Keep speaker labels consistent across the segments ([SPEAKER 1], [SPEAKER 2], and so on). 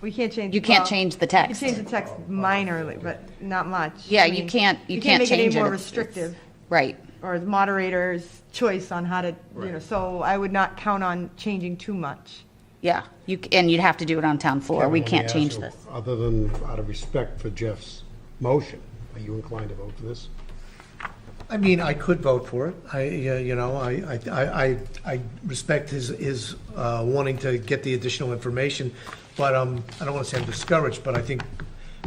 [SPEAKER 1] We can't change.
[SPEAKER 2] You can't
[SPEAKER 1] well,
[SPEAKER 2] change the
[SPEAKER 1] You
[SPEAKER 2] text.
[SPEAKER 1] change the text minorly, but not much.
[SPEAKER 2] Yeah,
[SPEAKER 1] I
[SPEAKER 2] you
[SPEAKER 1] mean,
[SPEAKER 2] can't, you can't
[SPEAKER 1] make it any
[SPEAKER 2] change it.
[SPEAKER 1] more
[SPEAKER 2] It's- it's-
[SPEAKER 1] restrictive,
[SPEAKER 2] Right.
[SPEAKER 1] or the moderator's choice on how to, you know, so I would not count on changing too much.
[SPEAKER 2] Yeah, you, c- and you'd have to do it on town floor.
[SPEAKER 3] Kevin,
[SPEAKER 2] We
[SPEAKER 3] let me
[SPEAKER 2] can't
[SPEAKER 3] ask
[SPEAKER 2] change
[SPEAKER 3] you,
[SPEAKER 2] this.
[SPEAKER 3] Other than out of respect for Jeff's motion, are you inclined to vote for this?
[SPEAKER 4] I mean, I could vote for it. I, uh, you know, I, I- I, I, I respect his, his uh, wanting to get the additional information, but um, I don't want to say I'm discouraged, but I think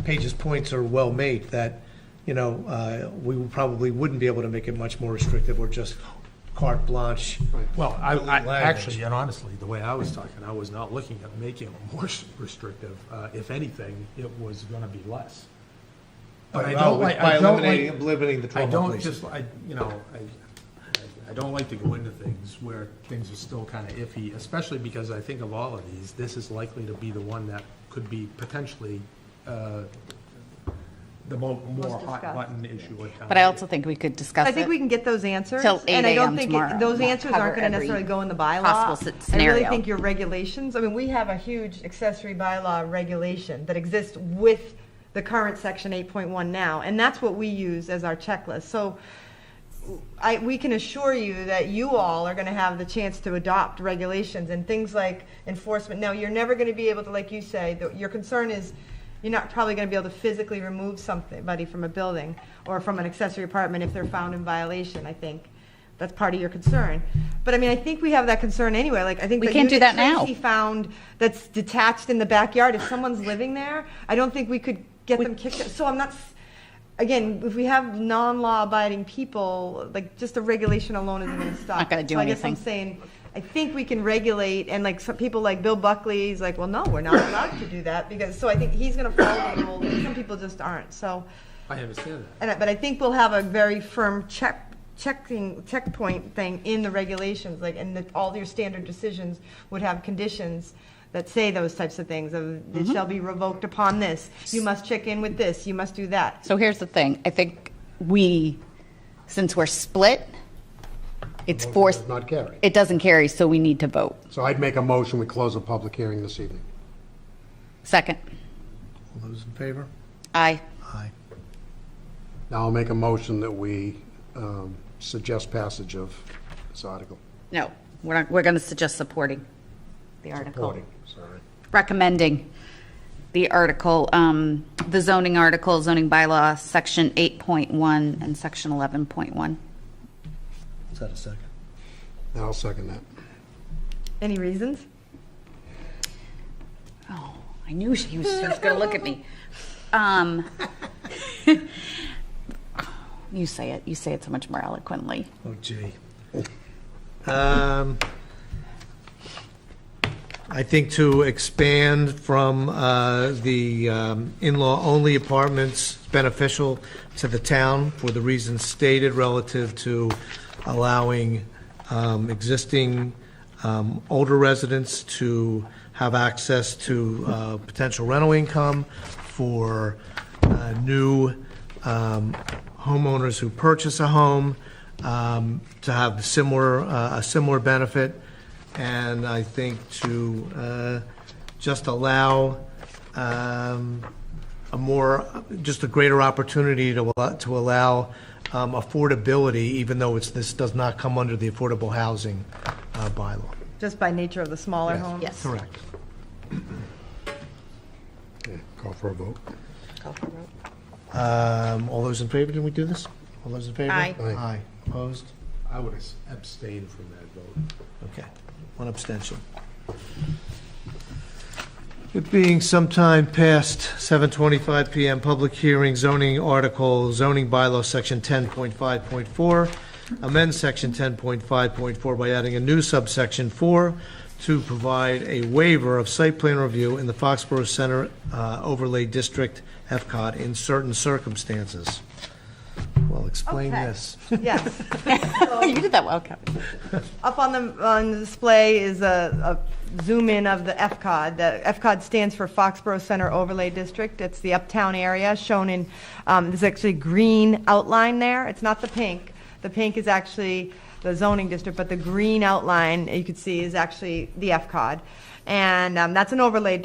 [SPEAKER 4] Paige's points are well made, that, you know, uh, we probably wouldn't be able to make it much more restrictive or just carte blanche.
[SPEAKER 5] Well, I, I,
[SPEAKER 4] Language.
[SPEAKER 5] actually, and honestly, the way I was talking, I was not looking at making it more restrictive. Uh, if anything, it was gonna be less. But I
[SPEAKER 4] Well,
[SPEAKER 5] don't like-
[SPEAKER 4] by
[SPEAKER 5] I don't
[SPEAKER 4] eliminating-
[SPEAKER 5] like-
[SPEAKER 4] eliminating the
[SPEAKER 5] I
[SPEAKER 4] 12
[SPEAKER 5] don't
[SPEAKER 4] places.
[SPEAKER 5] just, I, you know, I, I- I don't like to go into things where things are still kind of iffy, especially because I think of all of these, this is likely to be the one that could be potentially, uh, the mo- more
[SPEAKER 1] Most
[SPEAKER 5] hot
[SPEAKER 1] discussed.
[SPEAKER 5] button issue at town.
[SPEAKER 2] But I also think we could discuss it.
[SPEAKER 1] I think we can get those answers.
[SPEAKER 2] Till 8
[SPEAKER 1] And I
[SPEAKER 2] a.m.
[SPEAKER 1] don't think it-
[SPEAKER 2] tomorrow.
[SPEAKER 1] those
[SPEAKER 2] We'll
[SPEAKER 1] answers
[SPEAKER 2] cover
[SPEAKER 1] aren't going to
[SPEAKER 2] every
[SPEAKER 1] necessily go in the bylaw.
[SPEAKER 2] possible s-
[SPEAKER 1] I
[SPEAKER 2] scenario.
[SPEAKER 1] really think your regulations, I mean, we have a huge accessory bylaw regulation that exists with the current section 8.1 now, and that's what we use as our checklist. So I, we can assure you that you all are going to have the chance to adopt regulations and things like enforcement. Now, you're never going to be able to, like you say, the, your concern is you're not probably going to be able to physically remove somebody from a building or from an accessory apartment if they're found in violation, I think. That's part of your concern. But I mean, I think we have that concern anyway. Like, I think
[SPEAKER 2] We
[SPEAKER 1] the
[SPEAKER 2] can't do
[SPEAKER 1] unit
[SPEAKER 2] that now.
[SPEAKER 1] Tracy found that's detached in the backyard, if someone's living there, I don't think we could get them kicked out. So I'm not, s- again, if we have non-law abiding people, like just a regulation alone isn't gonna stop.
[SPEAKER 2] Not gonna do
[SPEAKER 1] So I guess I'm
[SPEAKER 2] anything.
[SPEAKER 1] saying, I think we can regulate and like some people like Bill Buckley, he's like, well, no, we're not allowed to do that because, so I think he's gonna follow the rule. and Some people just aren't, so.
[SPEAKER 5] I understand that.
[SPEAKER 1] And, I- but I think we'll have a very firm check, checking, checkpoint thing in the regulations, like, and that all your standard decisions would have conditions that say those types of things, of, it shall be revoked upon this, you must check in with this, you must do that.
[SPEAKER 2] So here's the thing, I think we, since we're split, it's forced,
[SPEAKER 3] Does Not carry.
[SPEAKER 2] it doesn't carry, so we need to vote.
[SPEAKER 3] So I'd make a motion, we close the public hearing this evening.
[SPEAKER 2] Second,
[SPEAKER 4] All those in favor?
[SPEAKER 2] aye.
[SPEAKER 4] Aye.
[SPEAKER 3] Now I'll make a motion that we um, suggest passage of
[SPEAKER 2] Uh,
[SPEAKER 3] this article.
[SPEAKER 2] No, we're not, we're going to suggest supporting the article.
[SPEAKER 3] Voting, sorry.
[SPEAKER 2] Recommending the article, um, the zoning article, zoning bylaw, section 8.1 and section 11.1.
[SPEAKER 4] Is that a second?
[SPEAKER 3] And I'll second that.
[SPEAKER 1] Any reasons?
[SPEAKER 2] Oh, I knew she was, she was going to look at me. Um, you say it, you say it so much more eloquently.
[SPEAKER 4] Oh, gee. Um, I think to expand from uh, the um, in-law-only apartments beneficial to the town for the reasons stated relative to allowing um, existing um, older residents to have access to uh, potential rental income for uh, new um, homeowners who purchase a home um, to have similar, uh, a similar benefit. And I think to uh, just allow um, a more, just a greater opportunity to, allow- to allow um, affordability, even though it's, this does not come under the affordable housing uh, bylaw.
[SPEAKER 1] Just by nature of the smaller homes?
[SPEAKER 2] Yes.
[SPEAKER 4] Correct.
[SPEAKER 3] Okay, Call for a vote.
[SPEAKER 4] Um, All those in favor, did we do this? All those in favor?
[SPEAKER 2] Aye.
[SPEAKER 3] Aye.
[SPEAKER 4] Aye. Opposed?
[SPEAKER 5] I would abstain from that vote.
[SPEAKER 4] Okay, one abstention. It being sometime past 7:25 PM, public hearing zoning article, zoning bylaw, section 10.5.4, amend section 10.5.4 by adding a new subsection 4 to provide a waiver of site plan review in the Foxborough Center uh, Overlay District, FCOT, in certain circumstances. Well, explain
[SPEAKER 1] Okay.
[SPEAKER 4] this.
[SPEAKER 1] Yes.
[SPEAKER 2] You did that well, Kevin.
[SPEAKER 1] Up on the, on the display is a, a zoom in of the FCOD. The FCOD stands for Foxborough Center Overlay District. It's the uptown area shown in, um, there's actually green outline there. It's not the pink. The pink is actually the zoning district, but the green outline you could see is actually the FCOD. And, um, that's an overlay